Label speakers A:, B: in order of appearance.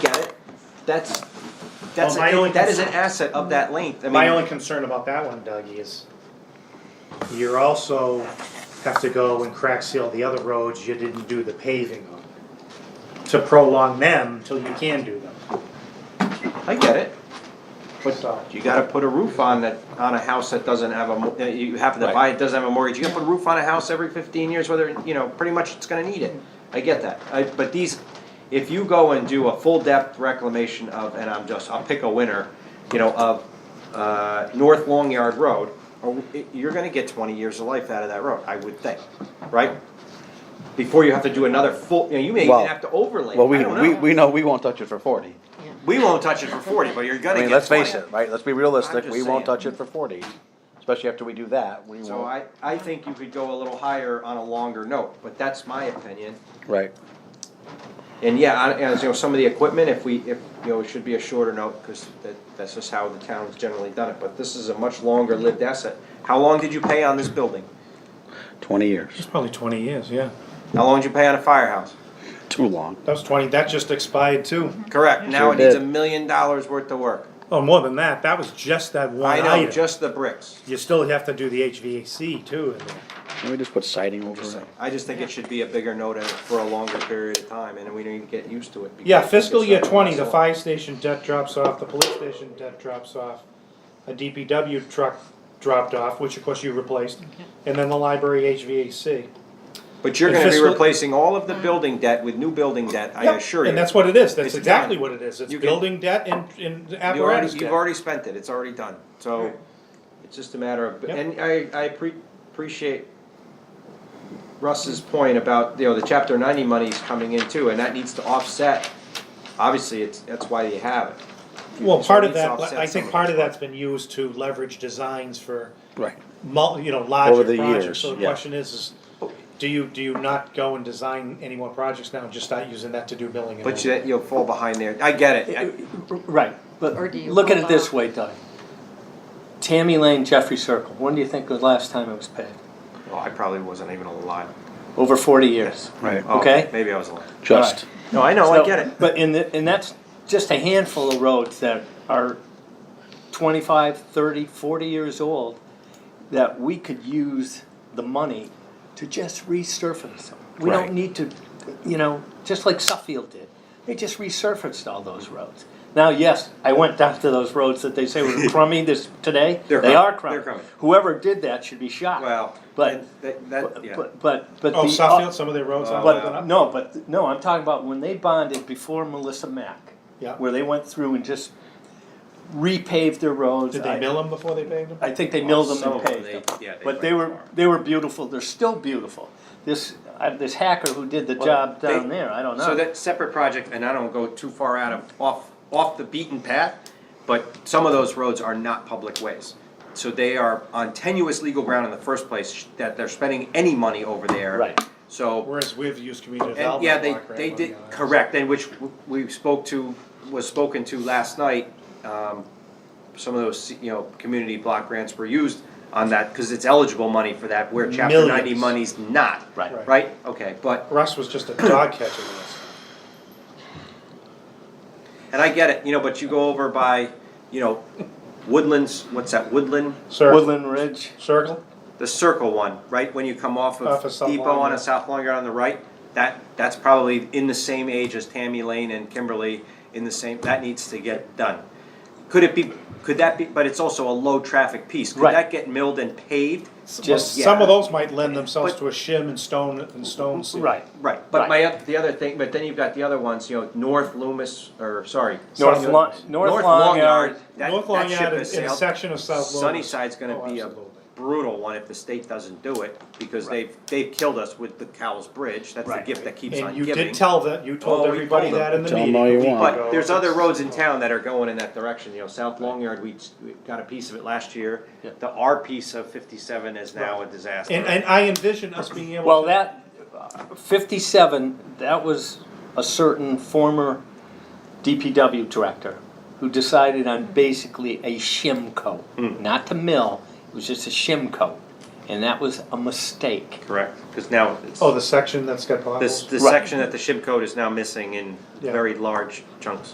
A: that's, that's,
B: Well, my
A: a-
B: only
A: that is an
B: concern-
A: asset of that length, I
B: My only
A: mean,
B: concern about that one, Doug, is you're also have to go and crack seal the other roads you didn't do the paving on. To prolong them till you can do them.
A: I get it.
B: What's all?
A: You gotta put a roof on that, on a house that doesn't have a, mo- that you have to
C: Right.
A: buy, it doesn't have a mortgage, you gotta put a roof on a house every fifteen years, whether, you know, pretty much it's gonna need it. I get that, I, but these, if you go and do a full depth reclamation of, and I'm just, I'll pick a winner, you know, of, uh, North Long Yard Road, or, you're gonna get twenty years of life out of that road, I would think, right? Before you have to do another full, you know, you may even
C: Well-
A: have to overlay, I
C: Well, we,
A: don't
C: we,
A: know.
C: we know we won't touch it for forty.
A: We won't touch it for forty, but you're
C: I
A: gonna
C: mean,
A: get
C: let's face
A: 20.
C: it, right? Let's be realistic.
A: just
C: We won't
A: saying.
C: touch it for forty, especially after we do that. We
A: So
C: won't,
A: I, I think you could go a little higher on a longer note, but that's my opinion.
C: right?
A: And yeah, I- as you know, some of the equipment, if we, if, you know, it should be a shorter note, cause that, that's just how the town's generally done it, but this is a much longer lived asset. How long did you pay on this building?
C: Twenty years,
B: Probably twenty years, yeah.
A: How long did you pay on a firehouse?
C: too long.
B: That was twenty, that just expired too.
A: Correct, now
C: Sure
A: it needs a
C: did.
A: million dollars worth of work.
B: Oh, more than that, that was just that one
A: I know,
B: item.
A: just the bricks.
B: You still have to do the HVAC too. in there.
C: Can we just put siding over it?
A: I just think it should be a bigger note and for a longer period of time, and we need to get used to it. because
B: Yeah,
A: it
B: fiscal
A: gets
B: year
A: that
B: twenty, the
A: much-
B: fire station debt drops off, the police station debt drops off, a DPW truck dropped off, which of course you replaced, and then the library HVAC.
A: But you're
B: And
A: gonna be
B: fiscal-
A: replacing all of the building debt with new building debt, I
B: Yep,
A: assure you.
B: And that's what it is, that's
A: It's
B: exactly
A: done.
B: what it is, it's
A: You can-
B: building debt and, and
A: You already,
B: apparatus
A: you've
B: debt.
A: already spent it, it's already done, so, it's just a matter of,
B: Yep.
A: and I, I pre- appreciate Russ's point about, you know, the chapter ninety money's coming in too, and that needs to offset, obviously, it's, that's why you have it.
B: Well,
A: so
B: part
A: it
B: of
A: needs to
B: that,
A: offset
B: I
A: some
B: think
A: of
B: part
A: it.
B: of that's been used to leverage designs for
C: Right.
B: mul, you know, larger
C: the
B: projects,
C: years,
B: so the
C: yeah.
B: question is, is do you, do you not go and design any more projects now and just start using that to do billing and all?
A: But you, you'll fall behind there, I get it, I-
D: Right, but
E: Or do you
D: look at
E: hold
D: it this
E: off?
D: way, Doug. Tammy Lane, Jeffrey Circle, when do you think was the last time it was paved?
A: oh, I probably wasn't even alive.
D: Over forty years.
C: Right.
A: Oh,
D: Okay.
A: Maybe I was alive.
C: Just,
A: No, I know,
D: So-
A: I get it,
D: But in the, and that's just a handful of roads that are 25, 30, 40 years old that we could use the money to just resurface them. We
C: Right.
D: don't need to, you know, just like Suffield did. They just resurfaced all those roads. Now, yes, I went down to those roads that they say were crummy this today.
A: They're
D: they
A: crummy.
D: are
A: They're crummy.
D: crummy. Whoever did that should be shot.
A: well,
D: but
A: and that, that, yeah,
D: but but but
B: Oh,
D: the- uh,
B: Southfield, some of their roads.
A: Oh,
B: are
A: yeah.
B: open
D: but
B: up?
D: no, but no, I'm talking about when they bonded before Melissa Mack.
B: Yeah.
D: Where they went through and just repaved their roads.
B: Did they
D: I-
B: mill them before they paved them?
D: I think they milled them
A: Oh, Some of
D: and
A: them,
D: paved
A: they-
D: them.
A: yeah, they
D: But they
A: went
D: were,
A: far.
D: they were beautiful, they're still beautiful. This, uh, this hacker who did the
A: Well,
D: job
A: they-
D: down there, I don't know.
A: So that separate project, and I don't go too far out of, off, off the beaten path, but some of those roads are not public ways. So they are on tenuous legal ground in the first place, that they're spending any money over there.
D: Right.
A: So,
B: Whereas we've used community
A: and
B: development.
A: yeah, they,
B: block grant
A: they
B: money
A: did,
B: on that.
A: correct, and which we spoke to, was spoken to last night. um, Some of those, you know, community block grants were used on that, cause it's eligible money for that, where chapter ninety money's
B: Millions.
A: not.
D: Right.
B: Right.
A: Right, okay, but
B: Russ was just a dog catcher with us.
A: And I get it, you know, but you go over by, you know, Woodlands, what's that, Woodland?
B: Cir-
D: Woodland Ridge,
B: Circle?
A: The circle one, right, when you come off of
B: Off of South
A: Depot on
B: Longyear.
A: a South Longyear on the right? That, that's probably in the same age as Tammy Lane and Kimberly, in the same, that needs to get done. Could it be, could that be, but it's also a low-traffic piece, could
D: Right.
A: that get milled and paved?
D: Just-
B: Some
A: Yeah.
B: of those might lend themselves
A: But-
B: to a shim and stone, and stone seal.
D: right.
A: Right, but
D: Right.
A: my, oth- the other thing, but then you've got the other ones, you know, North Loomis, or, sorry.
D: North
B: South-
D: Long, North Long Yard,
A: that-
B: North
A: that
B: Long
A: ship
B: Yard
A: has
B: is in a
A: sailed.
B: section of South Lowell.
A: Sunnyside's gonna
B: Oh,
A: be a
B: absolutely.
A: brutal one if the state doesn't do it, because
D: Right.
A: they've, they've killed us with the Cowles Bridge, that's the
D: Right.
A: gift that keeps on
B: And you
A: giving.
B: did tell that, you told
A: Oh, we
B: everybody
A: told them.
B: that in the
C: Tell 'em
B: meeting.
C: all
B: a
C: you
B: week
C: want.
A: But
B: ago.
A: there's other roads in town that are going in that direction, you know, South Long Yard, we, we got a piece of it last year.
D: Yeah.
A: The R piece of fifty-seven is now a disaster.
B: And, and I envision us being able.
D: Well,
B: to-
D: that, fifty-seven, that was a certain former DPW director who decided on basically a shim coat, not to mill, it was just a shim coat. And that was a mistake.
A: Correct, cause now it's,
B: Oh, the section that's got
A: this,
B: potholes?
A: the
D: Right.
A: section that the ship code is now missing in
B: Yeah.
A: very large chunks.